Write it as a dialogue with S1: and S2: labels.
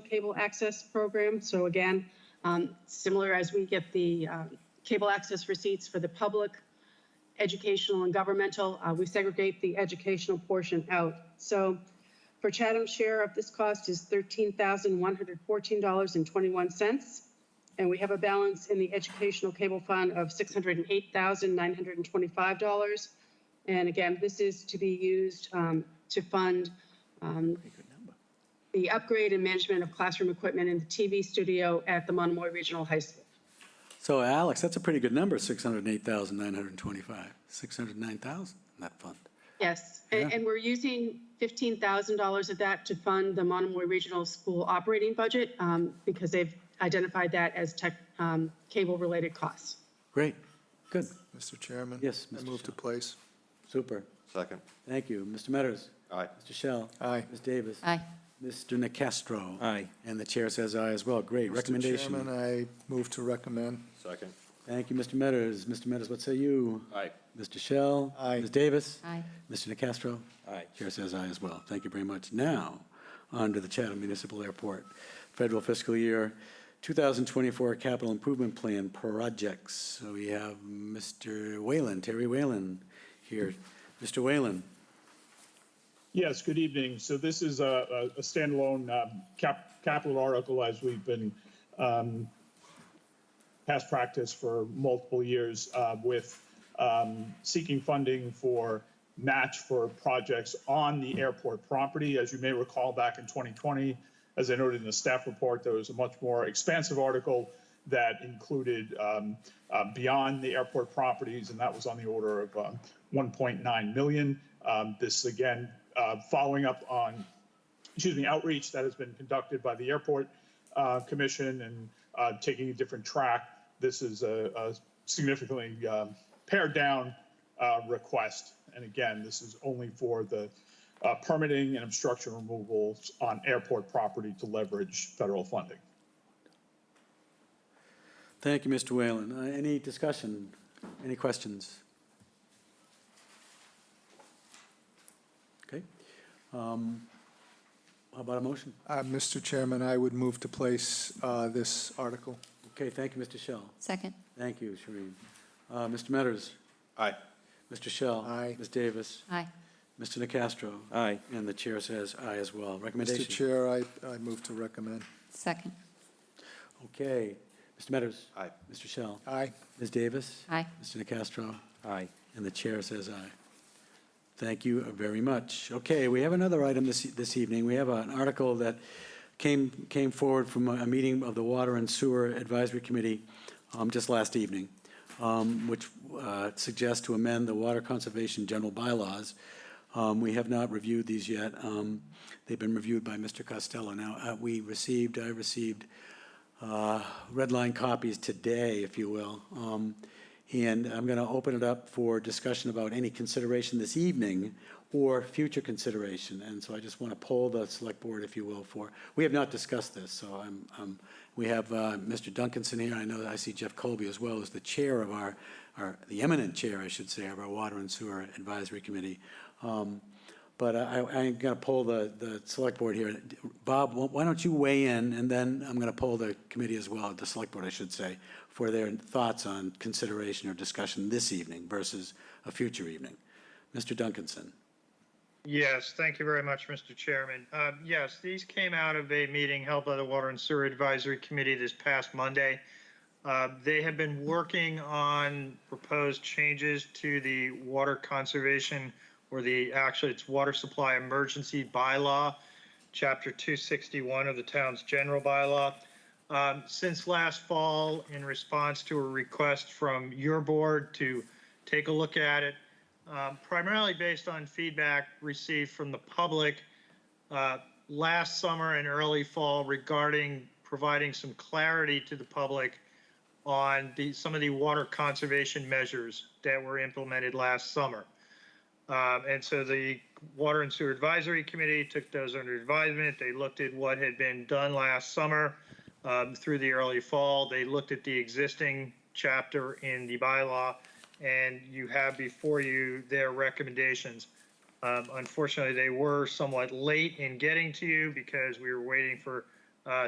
S1: cable access program. So again, um, similar as we get the um, cable access receipts for the public, educational and governmental, uh, we segregate the educational portion out. So for Chatham's share of this cost is $13,114.21. And we have a balance in the educational cable fund of $608,925. And again, this is to be used um, to fund um, the upgrade and management of classroom equipment in the TV studio at the Monomoy Regional High School.
S2: So Alex, that's a pretty good number, 608,925, 609,000 in that fund.
S1: Yes, and, and we're using fifteen thousand dollars of that to fund the Monomoy Regional School operating budget, um, because they've identified that as tech, um, cable-related costs.
S2: Great, good,
S3: Mr. Chairman?
S2: Yes,
S3: I
S2: Mr.
S3: move to place.
S2: super.
S4: Second.
S2: Thank you. Mr. Metters.
S4: Aye.
S2: Mr. Shell.
S3: Aye.
S2: Ms. Davis.
S5: Aye.
S2: Mr. Nacastro.
S6: Aye.
S2: And the chair says aye as well. Great
S3: Mr. Chairman,
S2: recommendation.
S3: I move to recommend.
S4: Second.
S2: Thank you, Mr. Metters. Mr. Metters, what say you?
S4: Aye.
S2: Mr. Shell.
S3: Aye.
S2: Ms. Davis.
S5: Aye.
S2: Mr. Nacastro.
S6: Aye.
S2: Chair says aye as well. Thank you very much. Now, on to the Chatham Municipal Airport Federal Fiscal Year 2024 Capital Improvement Plan Projects. So we have Mr. Whalen, Terry Whalen here. Mr. Whalen,
S7: Yes, good evening. So this is a, a- a standalone um, cap, capital article as we've been um, past practice for multiple years uh, with um, seeking funding for match for projects on the airport property. As you may recall, back in 2020, as I noted in the staff report, there was a much more expansive article that included um, uh, beyond the airport properties, and that was on the order of um, 1.9 million. Um, this again, uh, following up on excuse me, outreach that has been conducted by the airport uh, commission and uh, taking a different track. This is a, a significantly um, pared down uh, request. And again, this is only for the uh, permitting and obstruction removals on airport property to leverage federal funding.
S2: Thank you, Mr. Whalen. Uh, Any discussion, any questions? Okay. Um, How about a motion?
S3: Uh, Mr. Chairman, I would move to place uh, this article.
S2: Okay, thank you, Mr. Shell.
S5: Second.
S2: Thank you, Shereen. Uh, Mr. Metters,
S4: Aye.
S2: Mr. Shell.
S3: Aye.
S2: Ms. Davis,
S5: Aye.
S2: Mr. Nacastro.
S6: Aye.
S2: And the chair says aye as well.
S3: Mr.
S2: Recommendation?
S3: Chair, I, I move to recommend.
S5: Second.
S2: Okay. Mr. Metters.
S4: Aye.
S2: Mr. Shell.
S3: Aye.
S2: Ms. Davis.
S5: Aye.
S2: Mr. Nacastro.
S6: Aye.
S2: And the chair says aye. Thank you very much. Okay, we have another item this, this evening. We have an article that came, came forward from a meeting of the Water and Sewer Advisory Committee um, just last evening, um, which uh, suggests to amend the Water Conservation General Bylaws. Um, We have not reviewed these yet. Um, They've been reviewed by Mr. Costello. Now, uh, we received, I received uh, red line copies today, if you will. Um, And I'm going to open it up for discussion about any consideration this evening or future consideration. And so I just want to poll the select board, if you will, for, we have not discussed this, so I'm, um, we have uh, Mr. Duncanson here. I know that I see Jeff Colby as well as the chair of our, our, the eminent chair, I should say, of our Water and Sewer Advisory Committee. Um, but I, I- I'm going to poll the, the select board here. Bob, why why don't you weigh in, and then I'm going to poll the committee as well, the select board, I should say, for their thoughts on consideration or discussion this evening versus a future evening. Mr. Duncanson.
S8: Yes, thank you very much, Mr. Chairman. Um, Yes, these came out of a meeting held by the Water and Sewer Advisory Committee this past Monday. Uh, They have been working on proposed changes to the water conservation, or the, actually, it's water supply emergency bylaw, Chapter 261 of the town's general bylaw. Um, Since last fall, in response to a request from your board to take a look at it, um, primarily based on feedback received from the public uh, last summer and early fall regarding providing some clarity to the public on the, some of the water conservation measures that were implemented last summer. Um, and so the Water and Sewer Advisory Committee took those under advisement. They looked at what had been done last summer um, through the early fall. They looked at the existing chapter in the bylaw, and you have before you their recommendations. Um, unfortunately, they were somewhat late in getting to you because we were waiting for